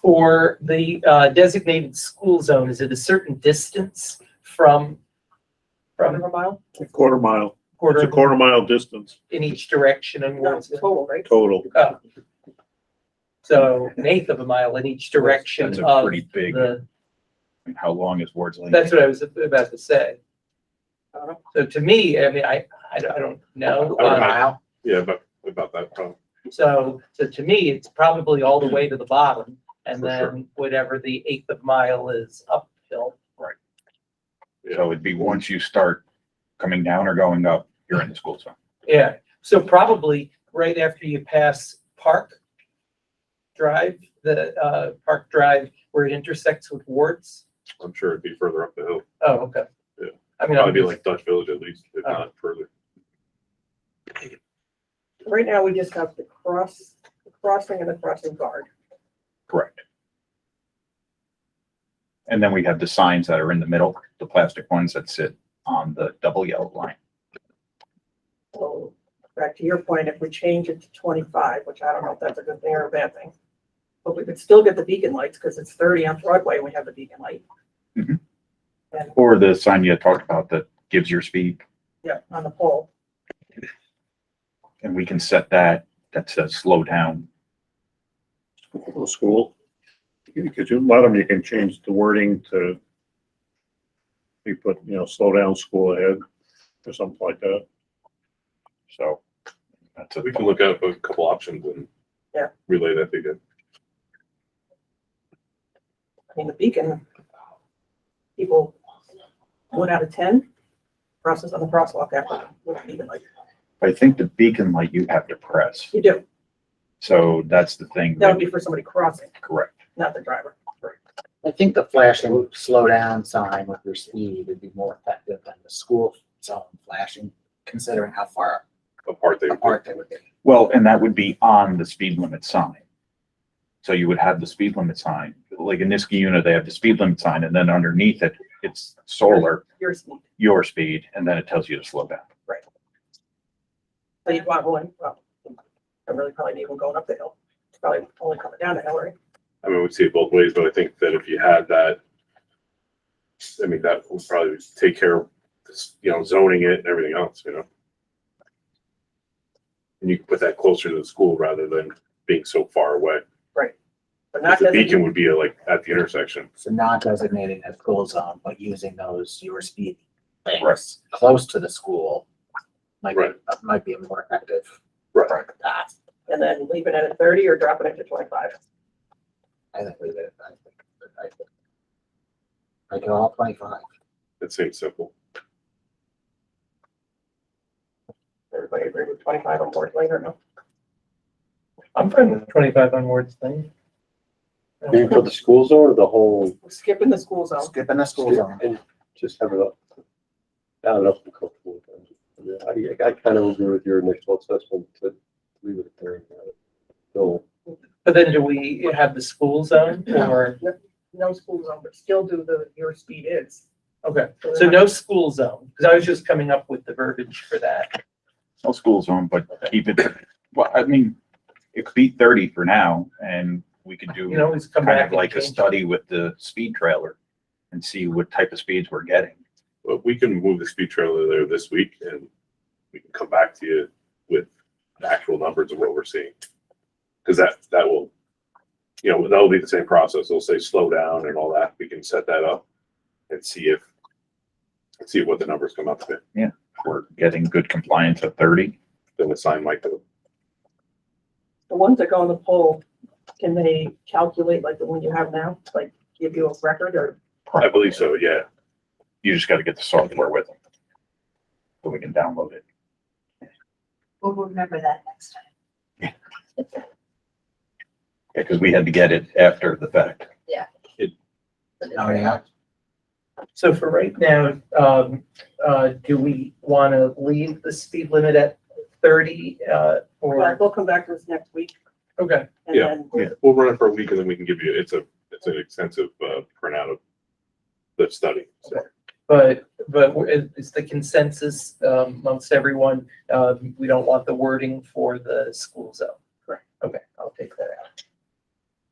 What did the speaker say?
for the uh, designated school zone, is it a certain distance from, from a mile? A quarter mile. It's Quarter a of- quarter mile distance in each direction and No, it's wards, total, right? total. uh, so an eighth of a mile in each direction That's a of pretty big, the, how long is Ward's Lane? that's what I was about to say. I don't know. So to me, I mean, I, I don't- I don't know. I would um, mile? Yeah, about, about that time. So, so to me, it's probably all the way to the bottom and For sure. then whatever the eighth of mile is uphill. So it'd be once you start coming down or going up, you're in the school zone. Yeah, so probably right after you pass Park Drive, the uh, Park Drive where it intersects with Wards. I'm sure it'd be further up the hill. Oh, okay. Yeah. I mean, Probably be I'm- like Dutch Village at least, if Oh. not further. Right now, we just have the cross, the crossing and the crossing guard. Correct. And then we have the signs that are in the middle, the plastic ones that sit on the double yellow line. So back to your point, if we change it to twenty-five, which I don't know if that's a good thing or a bad thing. But we could still get the beacon lights because it's thirty on Broadway and we have the beacon light. Mhm. And, Or the sign you talked about that gives your speed, yeah, on the pole. and we can set that, that says slow down. Little school. Because you, a lot of them, you can change the wording to you put, you know, slow down, school ahead, or something like that. So that's a We can look up a couple options and Yeah. relay that to you. I mean, the beacon, people, one out of ten crosses on the crosswalk after with the beacon light. I think the beacon light you have to press. You do. So that's the thing. That would be for somebody crossing, Correct. not the driver. I think the flashing slow down sign with your speed would be more effective than the school zone flashing, considering how far Apart they, apart they would be. Well, and that would be on the speed limit sign. So you would have the speed limit sign, like in Niski unit, they have the speed limit sign and then underneath it, it's solar, Your speed. your speed, and then it tells you to slow down. So you'd want one, well, I really probably need one going up the hill. It's probably only coming down the hill, right? I mean, we see it both ways, but I think that if you had that, I mean, that would probably take care of, this, you know, zoning it and everything else, you know? And you can put that closer to the school rather than being so far away. But not The beacon designated, would be like at the intersection. So not designating as school zone, but using those your speed Right. things close to the school might be, uh, Right. might be a more effective Right. path. and then leaving it at thirty or dropping it to twenty-five. I think we did it. I think- I think- Make it all twenty-five. It seems simple. Everybody agree with twenty-five on board later, no? I'm fine with twenty-five on Wards thing. Maybe for the school zone or the whole, Skipping the school zone. Skipping the school zone. and just have it up. I don't know if I'm comfortable with that. I, I kind of agree with your initial assessment to leave it at there. So, But then do we have the school zone or, No school zone, but still do the, your speed is. okay, so no school zone, because I was just coming up with the verbiage for that. No school zone, but keep it, well, I mean, it could be thirty for now and we could You do can always come kind back of and like a change. study with the speed trailer and see what type of speeds we're getting. But we can move the speed trailer there this week and we can come back to you with the actual numbers of what we're seeing. Cause that, that will, you know, that'll be the same process. They'll say slow down and all that. We can set that up and see if, see what the numbers come up to, If We're getting good compliance at thirty. then assign like the, The ones that go on the pole, can they calculate like the one you have now, like give you a record or? I believe so, yeah. You just gotta get the software with them. So we can download it. We'll remember that next time. Yeah, because we had to get it after the fact. Oh, yeah. So for right now, um, uh, do we want to leave the speed limit at thirty, uh, Well, or, We'll come back to this next week okay, and Yeah. then We'll run it for a week and then we can give you, it's a, it's an extensive, uh, printout of the study. So but, but it- it's the consensus um, amongst uh, everyone, um, we don't want the wording for the school zone. Correct. Okay, I'll take that out.